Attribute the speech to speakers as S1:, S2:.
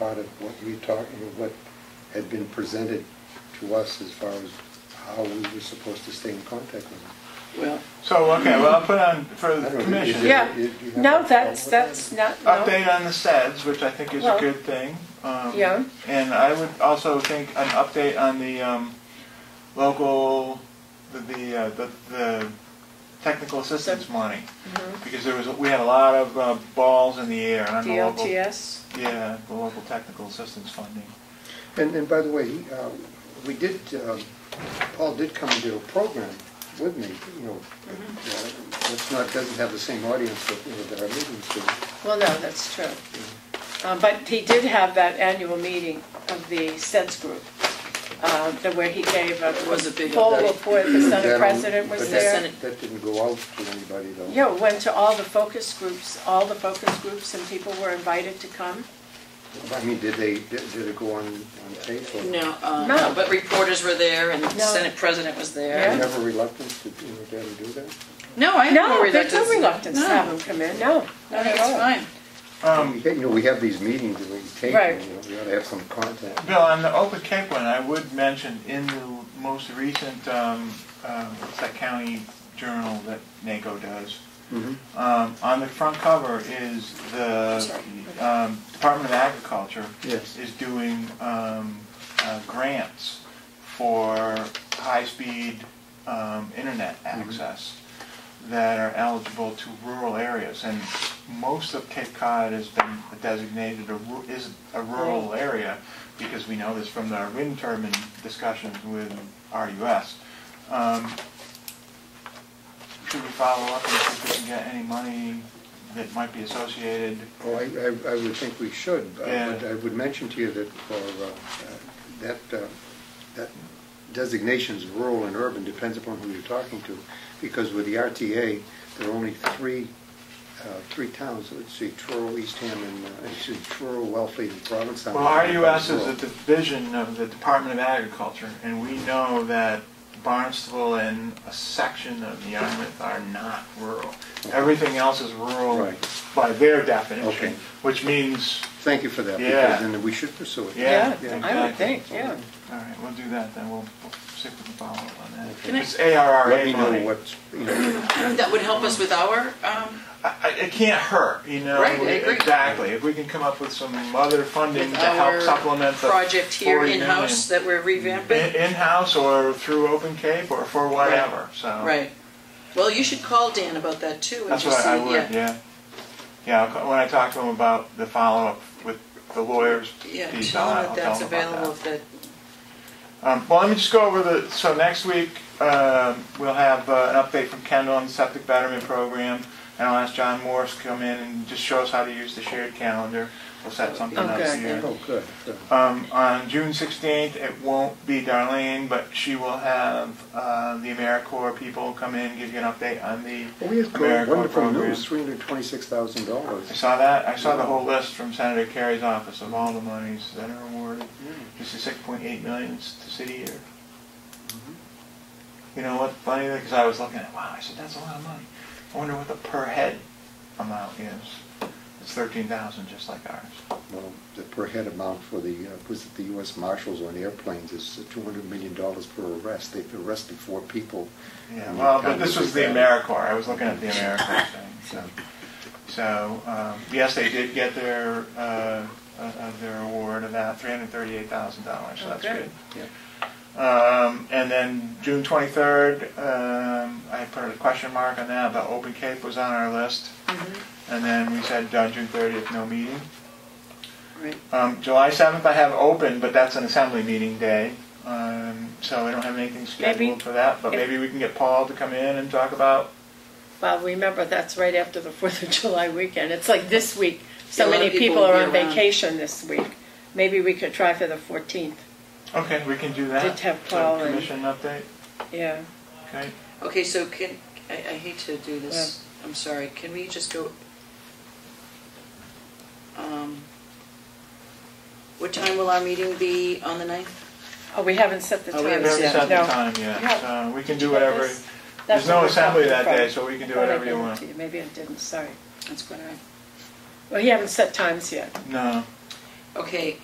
S1: of what we talked, what had been presented to us as far as how we were supposed to stay in contact with them.
S2: Well,
S3: So, okay, well, I'll put on for
S1: I
S3: the
S1: don't know, is
S3: commission.
S1: it-
S4: Yeah,
S1: you- you have a
S4: no,
S1: problem
S4: that's,
S1: with
S4: that's not, no.
S3: Update on the SEDS, which I think is a
S4: Well,
S3: good thing. Um,
S4: yeah.
S3: And I would also think an update on the um, local, the, the, uh, the, the technical assistance money. Because there was, we had a lot of uh, balls in the air on the local.
S4: DLTS,
S3: Yeah, the local technical assistance funding.
S1: And, and by the way, he, uh, we did, um, Paul did come and do a program with me, you know,
S4: Mm-hmm.
S1: uh, that's not, doesn't have the same audience that, you know, that our meetings do.
S4: well, no, that's true. Um, But he did have that annual meeting of the SEDS group, uh, the- where he gave a
S2: It was a big
S4: poll
S2: update.
S4: of where the
S1: That
S4: Senate
S1: only-
S4: president was
S1: but
S2: the
S4: there.
S2: Senate-
S1: that- That didn't go out to anybody though.
S4: Yeah, went to all the focus groups, all the focus groups, and people were invited to come.
S1: I mean, did they, did did it go on, on tape or?
S2: no, uh,
S4: No.
S2: no, but reporters were there and the
S4: No.
S2: Senate president was
S1: Do
S2: there.
S1: you have a reluctance to, you know, dare to do that?
S2: No, I have no
S4: No, there's
S2: reluctance.
S4: no reluctance to
S2: No.
S4: have them come in, no,
S2: I
S4: not
S2: think
S4: at
S2: it's
S4: all.
S2: fine.
S3: Um,
S1: We- You know, we have these meetings that we tape,
S4: Right.
S1: and, you know, we ought to have some content.
S3: Bill, on the Open Cape one, I would mention in the most recent, um, um, it's that county journal that NACO does,
S1: Mhm.
S3: um, on the front cover is the um, Department of Agriculture
S1: Yes.
S3: is doing um, uh, grants for high-speed um, internet access that are eligible to rural areas. And most of Cape Cod has been designated a, ru- is a rural area because we know this from the wind turbine discussions with RUS. Um, Should we follow up and see if we can get any money that might be associated?
S1: Oh, I, I I would think we should. but I would-
S3: Yeah.
S1: I would mention to you that for, uh, uh, that, uh, that designations of rural and urban depends upon who you're talking to, because with the RTA, there are only three, uh, three towns, let's see, Truro, Eastham, and, uh, excuse me, Truro, Wellfleet, and Provincetown.
S3: Well, RUS is a division of the Department of Agriculture, and we know that Barnstable and a section of Yarmouth are not rural. Everything else is rural
S1: Right.
S3: by their
S1: Okay.
S3: definition, which means,
S1: Thank you for that,
S3: Yeah.
S1: because then we should pursue it.
S3: yeah.
S4: Yeah, I would think, yeah.
S3: All right, we'll do that, then we'll we'll see if we can follow up on that.
S2: Can I-
S3: It's ARRA
S1: Let me
S3: money.
S1: know what's, you know,
S2: That would help us with our, um,
S3: I- I- It can't hurt, you know?
S2: Right, I agree.
S3: Exactly. If we can come up with some other funding
S2: with
S3: to help
S2: our
S3: supplement the
S2: project here
S3: 40
S2: in-house that we're
S3: million.
S2: revamping.
S3: In- In-house or through Open Cape or for whatever, so.
S2: Right. Well, you should call Dan about that too. and
S3: That's
S2: just
S3: what I
S2: see-
S3: would, yeah. Yeah, I'll co- when I talk to him about the follow-up with the lawyers.
S2: Yeah,
S3: piece, I'll-
S2: tell him that
S3: I'll
S2: that's
S3: him about
S2: available, if that,
S3: Um, Well, let me just go over the, so next week, um, we'll have uh, an update from Kendall on the septic betterment program, and I'll ask John Morse to come in and just show us how to use the shared calendar. We'll set something up
S4: Okay.
S3: here.
S1: oh, good, good.
S3: Um, on June 16th, it won't be Darlene, but she will have uh, the AmeriCorps people come in, give you an update on the
S1: Well, We have got
S3: AmeriCorps
S1: Oh, wonderful
S3: program.
S1: news, three hundred and twenty-six thousand dollars.
S3: I saw that. I saw the whole list from Senator Kerry's office of all the monies that are awarded. This is 6.8 million to city year. You know what? Funny because I was looking at wow. I said that's a lot of money. I wonder what the per head amount is. It's 13,000, just like ours.
S1: Well, the per head amount for the, uh, was it the US Marshals on airplanes is two hundred million dollars per arrest. They've arrested four people.
S3: Yeah.
S1: And
S3: Well,
S1: that
S3: but this
S1: was
S3: was the
S1: bad.
S3: AmeriCorps. I was looking at the AmeriCorps thing. So, so um, yes, they did get their uh, uh, uh, their award of that 338,000 dollars. So that's
S4: Okay.
S3: good.
S1: Yeah.
S3: Um, and then June 23rd, um, I put a question mark on that, but Open Cape was on our list.
S4: Mm-hmm.
S3: And then we said uh, June 30th, no meeting.
S2: right.
S3: Um, July 7th, I have open, but that's an assembly meeting day. Um, so I don't have anything scheduled
S4: Maybe-
S3: for that, but
S4: if-
S3: maybe we can get Paul to come in and talk about.
S4: Well, remember, that's right after the Fourth of July weekend. It's like this week,
S2: Yeah,
S4: so
S2: a lot
S4: many
S2: of people
S4: people are
S2: will
S4: on
S2: be around.
S4: vacation this week. Maybe we could try for the fourteenth,
S3: Okay, we can do that.
S4: Did have
S3: So,
S4: Paul and-
S3: Commission update.
S4: yeah.
S3: Okay.
S2: Okay, so can, I, I hate to do this, I'm sorry, can we just go? um, What time will our meeting be on the ninth?
S4: Oh, we haven't set the time
S2: Oh, we
S3: We
S2: haven't
S4: yet.
S3: haven't set the
S4: No.
S3: time yet.
S4: Yeah.
S3: So we can
S4: Did you
S3: do
S4: get
S3: whatever.
S4: this?
S3: There's
S4: That's
S3: no
S4: what we're
S3: assembly
S4: talking
S3: that
S4: from.
S3: day, so we can do
S4: Thought I
S3: whatever you
S4: gave it
S3: want.
S4: to you. Maybe it didn't, sorry.
S2: That's quite all right.
S4: Well, you haven't set times yet.
S3: No.
S2: Okay,